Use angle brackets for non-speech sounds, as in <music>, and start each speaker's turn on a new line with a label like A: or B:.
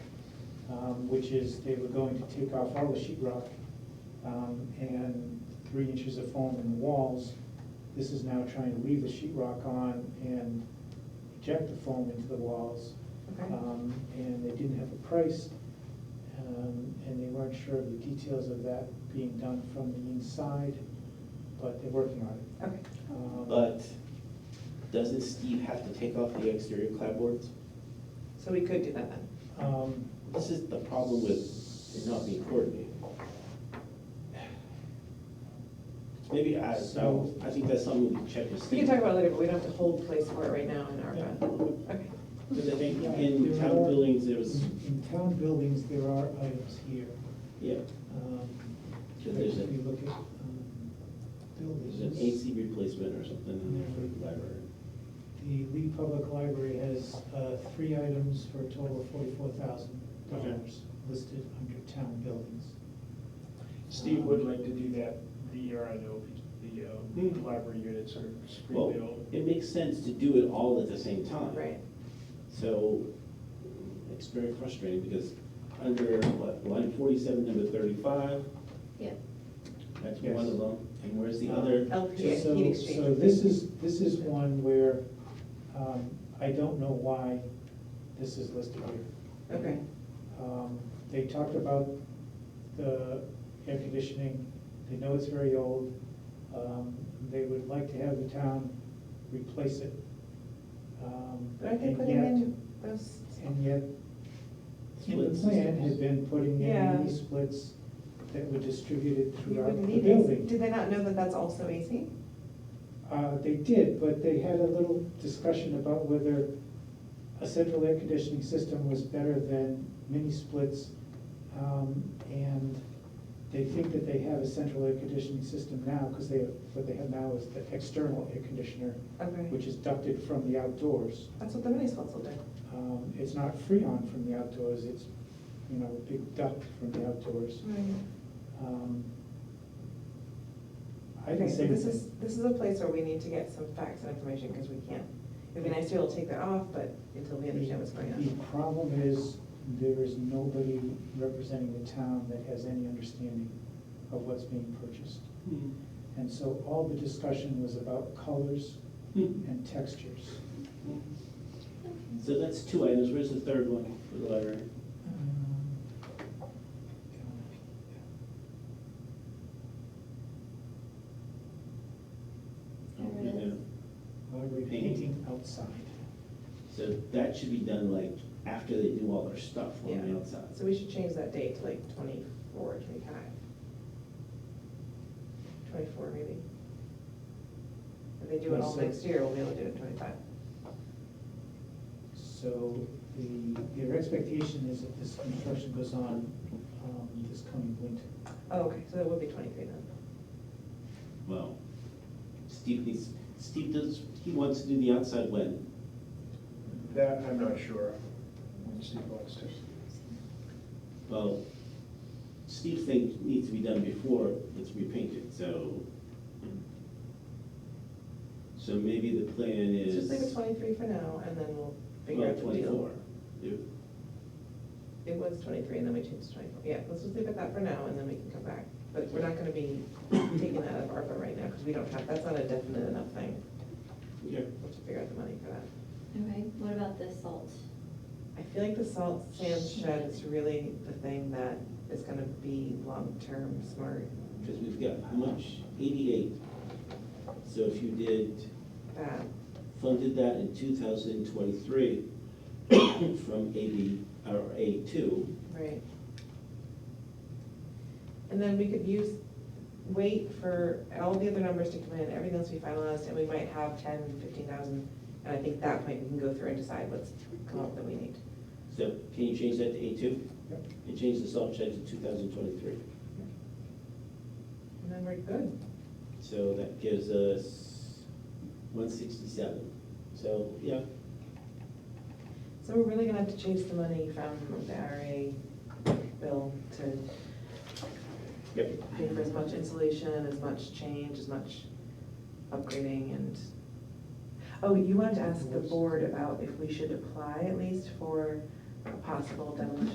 A: um, which is they were going to take off all the sheet rock um, and three inches of foam in the walls. This is now trying to leave the sheet rock on and eject the foam into the walls.
B: Okay.
A: Um, And they didn't have a price, um, and they weren't sure of the details of that being done from the inside, but they're working on it.
B: Okay.
A: Um,
C: But doesn't Steve have to take off the exterior clapboards?
B: So we could do that then.
A: um,
C: This is the problem with it not being coordinated. Maybe I,
A: So-
C: I think that's something we can check with
B: We
C: Steve.
B: can talk about it later, but we don't have to hold place for it right now in our,
A: Yeah.
B: okay.
C: Because I think in town buildings, there was,
A: In town buildings, there are items here.
C: yeah,
A: Um,
C: Yeah, there's a-
A: If you look at um,
C: there's an
A: buildings,
C: AC replacement or something in there for the library.
A: the Lee Public Library has uh, three items for a total of forty-four thousand dollars listed under town buildings.
D: Steve would like to do that the year I know the, uh, the library units are
C: Well,
D: screen-built.
C: it makes sense to do it all at the same time.
B: Right.
C: So it's very frustrating because under, what, line forty-seven, number thirty-five,
B: Yeah.
C: that's
D: Yes.
C: one of them. And where's the other?
B: LPA,
A: So-
B: heat exchange.
A: So this is, this is one where um, I don't know why this is listed here.
B: Okay,
A: Um, They talked about the air conditioning, they know it's very old, Um, they would like to have the town replace it. Um,
B: but I
A: and
B: think putting
A: yet-
B: in those,
A: And yet, in the
C: Split
A: plan
C: systems.
A: had been putting in
B: Yeah.
A: these splits that were distributed
B: you
A: throughout
B: wouldn't
A: the
B: need AC.
A: building.
B: Did they not know that that's also AC?
A: Uh, They did, but they had a little discussion about whether a central air conditioning system was better than mini splits. um, And they think that they have a central air conditioning system now, because they, what they have now is the external air conditioner,
B: Okay.
A: which is ducted from the outdoors.
B: That's what the mini splits will do.
A: Um, It's not freon from the outdoors, it's, you know, a big duct from the outdoors. Um, I
B: Okay,
A: didn't
B: so
A: say.
B: this is, this is a place where we need to get some facts and information, because we can't, it'd be nice to be able to take that off, but until we understand what's going
A: The
B: on.
A: problem is, there is nobody representing the town that has any understanding of what's being purchased.
C: Hmm.
A: And so all the discussion was about colors
C: Hmm.
A: and textures.
C: So that's two items, where's the third one for the library?
A: Um, Uh,
C: Oh,
B: There it
C: yeah.
B: is.
A: Library painting outside.
C: So that should be done like after they do all their stuff on
B: Yeah.
C: the outside.
B: So we should change that date to like twenty-four, twenty-five. Twenty-four maybe. If they do it all next year, we'll be able to do it in twenty-five.
A: So the, their expectation is that this construction goes on um, this coming winter.
B: Oh, okay, so that would be twenty-three then.
C: Well, Steve needs, Steve does, he wants to do the outside when?
D: That, I'm not sure when Steve wants to.
C: Well, Steve's thing needs to be done before it's repainted, so. So maybe the plan
B: Let's
C: is.
B: Just leave it twenty-three for now, and then we'll figure
C: well,
B: out the deal.
C: 24. If-
B: It was twenty-three, and then we changed to twenty-four. Yeah, let's just leave it that for now, and then we can come back. But we're not gonna be taking that out of ARPA right now, because we don't have, that's not a definite enough thing.
C: Okay.
B: We'll have to figure out the money for that.
E: Okay, what about the salt?
B: I feel like the salt sand shed is really the thing that is gonna be long-term smart
C: Because we've got how much? Eighty-eight. So if you did,
B: that.
C: funded that in two thousand twenty-three <coughs> from AB, or A two,
B: Right. And then we could use, wait for all the other numbers to come in, everything else we finalized, and we might have ten, fifteen thousand. And I think at that point, we can go through and decide what's come up that we need.
C: so can you change that to A two?
A: Yep.
C: And change the salt shed to two thousand twenty-three.
B: And then we're good.
C: So that gives us one sixty-seven. So, yeah,
B: So we're really gonna have to chase the money from the RA bill to
C: yep.
B: pay for as much insulation, as much change, as much upgrading and. Oh, you wanted to ask the board about if we should apply at least for a possible demolition